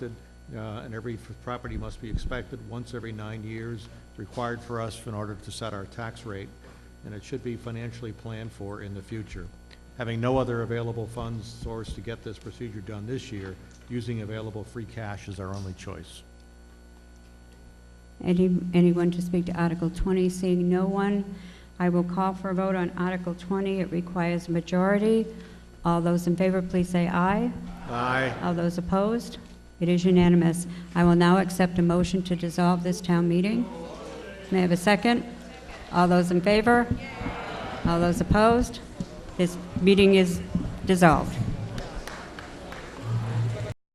expected, uh, and every f- property must be expected once every nine years, required for us in order to set our tax rate, and it should be financially planned for in the future. Having no other available funds source to get this procedure done this year, using available free cash is our only choice. Any, anyone to speak to Article 20? Seeing no one, I will call for a vote on Article 20. It requires a majority. All those in favor, please say aye. Aye. All those opposed? It is unanimous. I will now accept a motion to dissolve this town meeting. May I have a second? All those in favor? All those opposed? This meeting is dissolved.